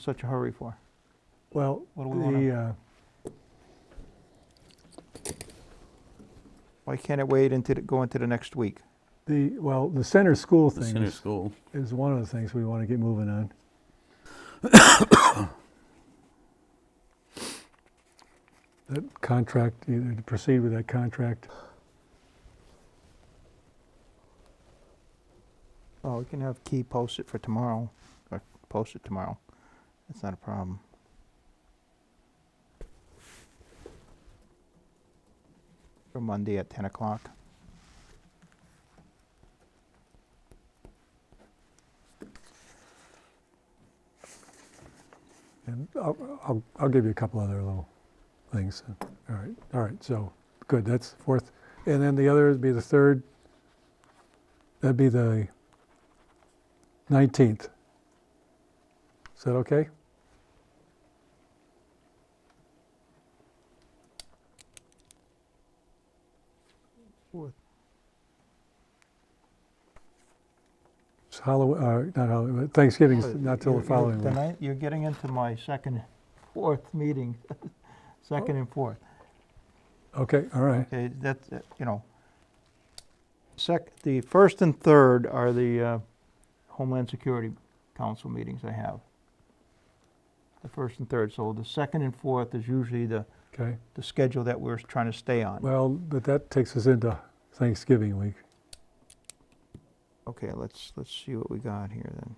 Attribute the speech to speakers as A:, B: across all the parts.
A: such a hurry for?
B: Well,
A: What do we wanna-
B: the, uh,
A: Why can't it wait into, the- go into the next week?
B: the, well, the center school
C: The
B: thing
C: center
B: is,
C: school.
B: is one of the things we want to get moving on. That contract, either to proceed with that contract.
A: Oh, we can have Key post it for tomorrow, or post it tomorrow. That's not a problem. For Monday at ten o'clock.
B: And I'll, I'll, I'll give you a couple other little things. All right, all right, so, good, that's fourth. And then the other would be the third, that'd be the nineteenth. Is that okay? It's Halloween, uh, not Halloween, Thanksgiving's not till
A: You're-
B: the
A: you're-
B: following week.
A: tonight- You're getting into my second, fourth meeting, second and fourth.
B: Okay, all right.
A: Okay, that's, uh, you know, sec, the first and third are the uh, Homeland Security Council meetings I have. The first and third, so the second and fourth is usually the,
B: Okay,
A: the schedule that we're trying to stay on.
B: well, but that takes us into Thanksgiving week.
A: Okay, let's, let's see what we got here then.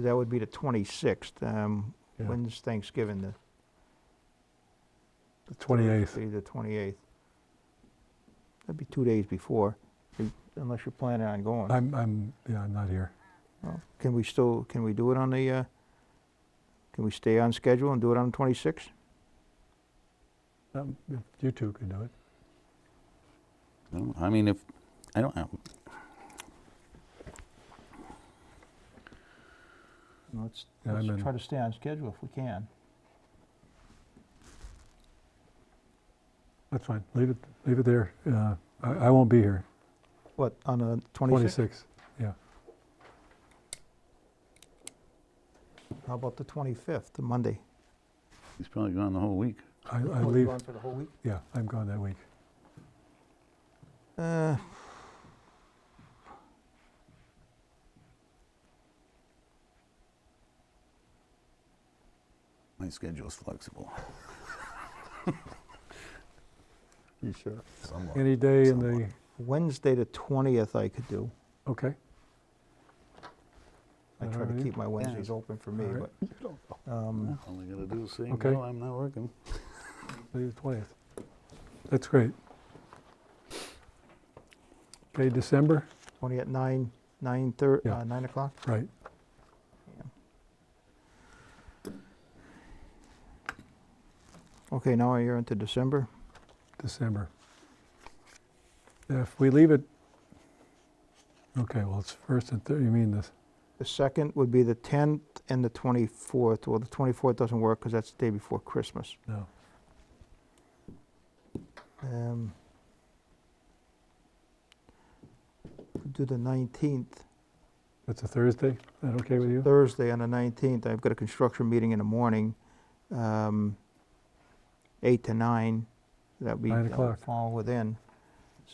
A: That would be the twenty-sixth, um,
B: Yeah.
A: when's Thanksgiving, the?
B: The 28th.
A: Thursday, The twenty-eighth. That'd be two days before, if- unless you're planning on going.
B: I'm, I'm, yeah, I'm not here.
A: Well, Can we still, can we do it on the, uh, can we stay on schedule and do it on the twenty-sixth?
B: Um, if You two can do it.
C: I don't- I mean, if, I don't, have-
A: Let's,
B: Yeah,
A: let's
B: I'm in.
A: try to stay on schedule if we can.
B: That's fine. Leave it, leave it there. Uh, I, I won't be here.
A: What, on the twenty-sixth?
B: 26th. Yeah.
A: How about the twenty-fifth, the Monday?
C: he's probably gone the whole week.
B: I,
A: Oh,
B: I
A: you're
B: leave.
A: gone for the whole week?
B: Yeah, I'm gone that week.
A: Uh,
C: My schedule's flexible.
A: you sure?
C: Somewhat.
B: Any day in the,
C: Somewhat.
A: Wednesday, the twentieth, I could do.
B: okay.
A: I
B: That
A: try
B: all
A: to
B: right?
A: keep my Wednesdays open for me,
B: All right.
A: but, um,
C: All I gotta do is say,
B: Okay.
C: no, I'm not working.
B: Leave the 20th. That's great. Okay, December?
A: twenty at nine, nine thir-
B: Yeah.
A: uh, nine o'clock?
B: Right.
A: Okay, now you're into December.
B: December. If we leave it, okay, well, it's first and third, you mean this,
A: The second would be the tenth and the twenty-fourth. Well, the twenty-fourth doesn't work because that's the day before Christmas.
B: no.
A: Um, could Do the nineteenth,
B: That's a Thursday? Is that okay with you?
A: Thursday on the nineteenth. I've got a construction meeting in the morning, um, eight to nine. That'd be.
B: Nine
A: that'd
B: o'clock.
A: Fall within.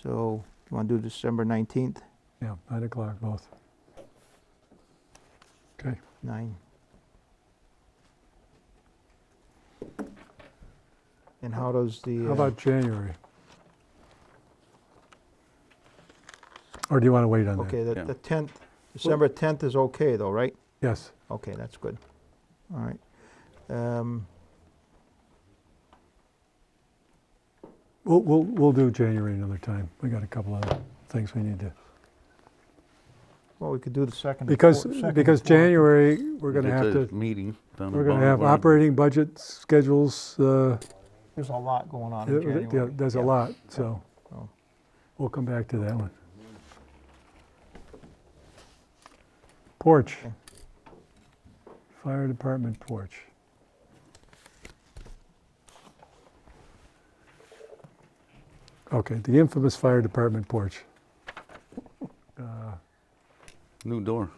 A: So you want to do December nineteenth?
B: Yeah, nine o'clock both. Okay,
A: Nine. And how does the?
B: how
A: uh,
B: about January? Or do you want to wait on that?
A: Okay,
C: Yeah.
A: the tenth, December tenth is okay though, right?
B: Yes,
A: Okay, that's good. All right. Um,
B: we'll, we'll, we'll do January another time. We got a couple other things we need to,
A: Well, we could do the second. and
B: because,
A: fourth- second and
B: because
A: fourth.
B: January, we're going to
C: Get
B: have
C: the
B: to,
C: Meeting. down the
B: we're going
C: bottom
B: to have
C: where-
B: operating budget schedules, uh,
A: There's a lot going on in
B: There- there-
A: January.
B: There's a
A: Yeah.
B: lot, so
A: Oh.
B: we'll come back to that one. Porch.
A: Okay.
B: Fire department porch. Okay, the infamous fire department porch. Uh,
C: new door.